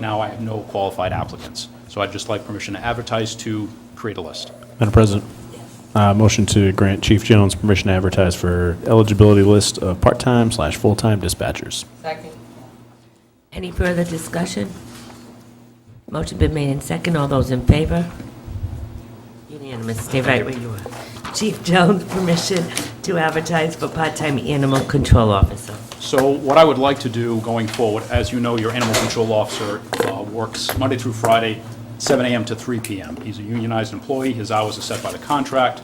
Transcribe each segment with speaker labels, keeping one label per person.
Speaker 1: now, I have no qualified applicants. So I'd just like permission to advertise to create a list.
Speaker 2: Madam President, uh, motion to grant Chief Jones permission to advertise for eligibility list of part-time slash full-time dispatchers.
Speaker 3: Second.
Speaker 4: Any further discussion? Motion been made in second. All those in favor? Unanimous. Stay right where you are. Chief Jones, permission to advertise for part-time animal control officer.
Speaker 1: So what I would like to do going forward, as you know, your animal control officer uh, works Monday through Friday, 7 AM to 3 PM. He's a unionized employee, his hours are set by the contract.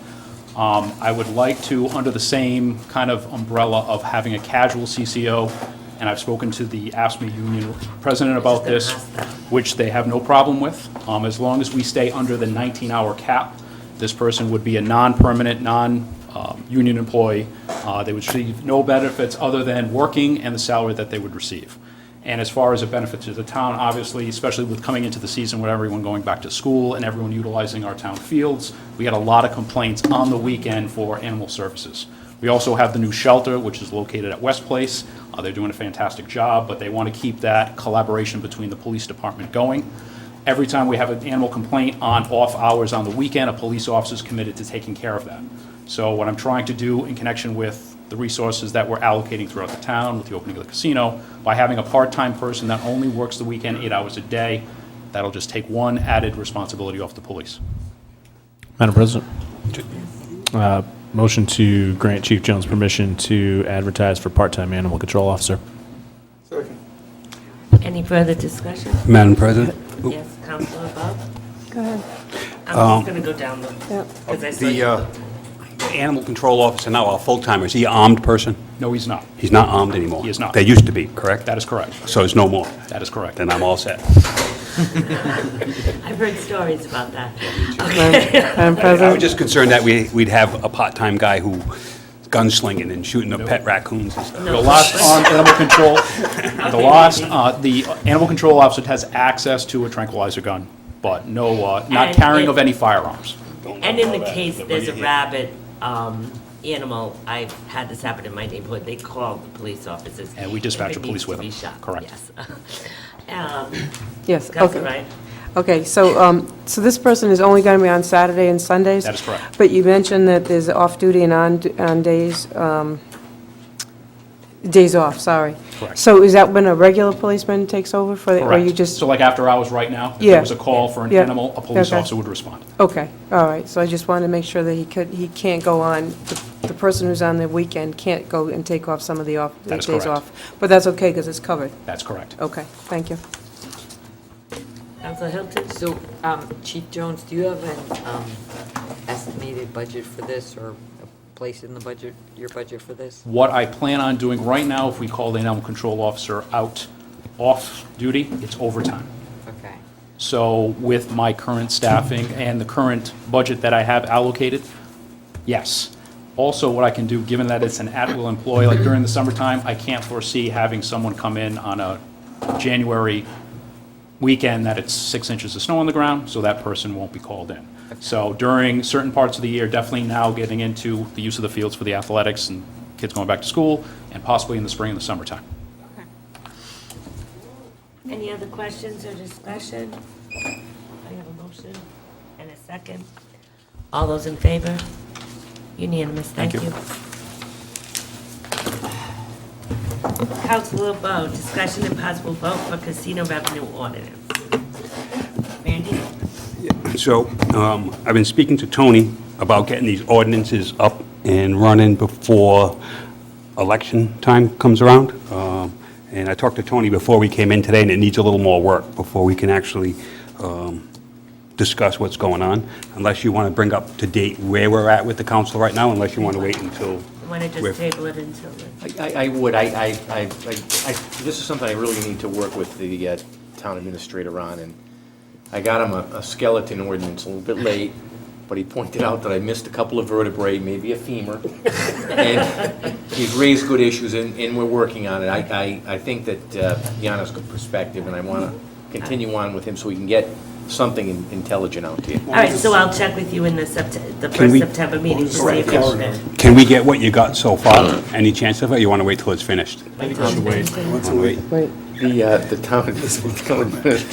Speaker 1: Um, I would like to, under the same kind of umbrella of having a casual CCO, and I've spoken to the ASME E union president about this,
Speaker 4: gonna ask that.
Speaker 1: which they have no problem with. Um, As long as we stay under the 19-hour cap, this person would be a non-permanent, non-union employee. Uh, They would receive no benefits other than working and the salary that they would receive. And as far as a benefit to the town, obviously, especially with coming into the season with everyone going back to school and everyone utilizing our town fields, we had a lot of complaints on the weekend for animal services. We also have the new shelter, which is located at West Place. Uh, They're doing a fantastic job, but they want to keep that collaboration between the police department going. Every time we have an animal complaint on off hours on the weekend, a police officer is committed to taking care of that. So what I'm trying to do in connection with the resources that we're allocating throughout the town with the opening of the casino, by having a part-time person that only works the weekend eight hours a day, that'll just take one added responsibility off the police.
Speaker 2: Madam President, uh, motion to grant Chief Jones permission to advertise for part-time animal control officer.
Speaker 3: Second.
Speaker 4: Any further discussion?
Speaker 5: Madam President?
Speaker 4: Yes, Counselor Bob?
Speaker 6: Go ahead.
Speaker 4: I'm just gonna go down them.
Speaker 6: Yep.
Speaker 4: Because I saw
Speaker 5: Um, The
Speaker 4: you
Speaker 5: uh,
Speaker 4: look.
Speaker 5: the animal control officer now, our full-timer, is he an armed person?
Speaker 1: No, he's not.
Speaker 5: He's not armed anymore?
Speaker 1: He is not.
Speaker 5: They used to be, correct?
Speaker 1: That is correct.
Speaker 5: So it's no more?
Speaker 1: That is correct.
Speaker 5: Then I'm all set.
Speaker 4: I've heard stories about that.
Speaker 6: Madam
Speaker 5: I was
Speaker 6: President,
Speaker 5: just concerned that we- we'd have a part-time guy who gunslinging and shooting the pet raccoons and stuff.
Speaker 1: The last armed animal control, the last, uh, the animal control officer has access to a tranquilizer gun, but no, uh, not
Speaker 4: And
Speaker 1: carrying
Speaker 4: it-
Speaker 1: of any firearms.
Speaker 4: And in the case, there's a rabid um, animal, I've had this happen in my neighborhood, they called the police officers.
Speaker 1: And we dispatch the police with them. Correct.
Speaker 4: Correct.
Speaker 6: yes,
Speaker 4: Counselor
Speaker 6: okay.
Speaker 4: Ryan?
Speaker 6: Okay, so, um, so this person is only going to be on Saturday and Sundays?
Speaker 1: That is correct.
Speaker 6: But you mentioned that there's off-duty and on, on days, um, days off, sorry.
Speaker 1: Correct.
Speaker 6: So is that when a regular policeman takes over for, the- or you
Speaker 1: Correct.
Speaker 6: just?
Speaker 1: So like after hours right now, if
Speaker 6: Yeah.
Speaker 1: there was a call for an
Speaker 6: Yeah.
Speaker 1: animal, a police
Speaker 6: Okay.
Speaker 1: officer would respond.
Speaker 6: Okay, all right, so I just wanted to make sure that he could, he can't go on, the- the person who's on the weekend can't go and take off some of the off, the
Speaker 1: That is
Speaker 6: days
Speaker 1: correct.
Speaker 6: off. But that's okay, because it's covered.
Speaker 1: That's correct.
Speaker 6: Okay, thank you.
Speaker 4: Counselor Hilton?
Speaker 3: So, um, Chief Jones, do you have an um, estimated budget for this, or a place in the budget, your budget for this?
Speaker 1: What I plan on doing right now, if we call the animal control officer out off duty, it's overtime.
Speaker 3: Okay.
Speaker 1: So with my current staffing and the current budget that I have allocated, yes. Also, what I can do, given that it's an at-will employee, like during the summertime, I can't foresee having someone come in on a January weekend that it's six inches of snow on the ground, so that person won't be called in. So during certain parts of the year, definitely now getting into the use of the fields for the athletics and kids going back to school, and possibly in the spring and the summertime.
Speaker 4: Any other questions or discussion? I have a motion and a second. All those in favor? Unanimous, thank
Speaker 1: Thank
Speaker 4: you.
Speaker 1: you.
Speaker 4: Counselor Bo, discussion and possible vote for casino revenue ordinance. Randy?
Speaker 5: So um, I've been speaking to Tony about getting these ordinances up and running before election time comes around. Um, And I talked to Tony before we came in today, and it needs a little more work before we can actually um, discuss what's going on, unless you want to bring up to date where we're at with the council right now, unless you want to wait until...
Speaker 4: Want to just
Speaker 5: we're-
Speaker 4: table it until then?
Speaker 7: I, I would, I, I, I, I- this is something I really need to work with the uh, town administrator on, and I got him a a skeleton ordinance a little bit late, but he pointed out that I missed a couple of vertebrae, maybe a femur. And he's raised good issues, and, and we're working on it. I, I, I think that uh, Yana's good perspective, and I want to continue on with him so we can get something in- intelligent out to you.
Speaker 4: All right, so I'll check with you in the Sept, the
Speaker 5: Can
Speaker 4: first
Speaker 5: we-
Speaker 4: September meeting to see if you're there.
Speaker 5: Can we get what you got so far? Any chance of it? You want to wait till it's finished?
Speaker 4: Wait till it's finished.
Speaker 5: Wait.
Speaker 6: Wait.
Speaker 7: The, uh, the town, the town administrator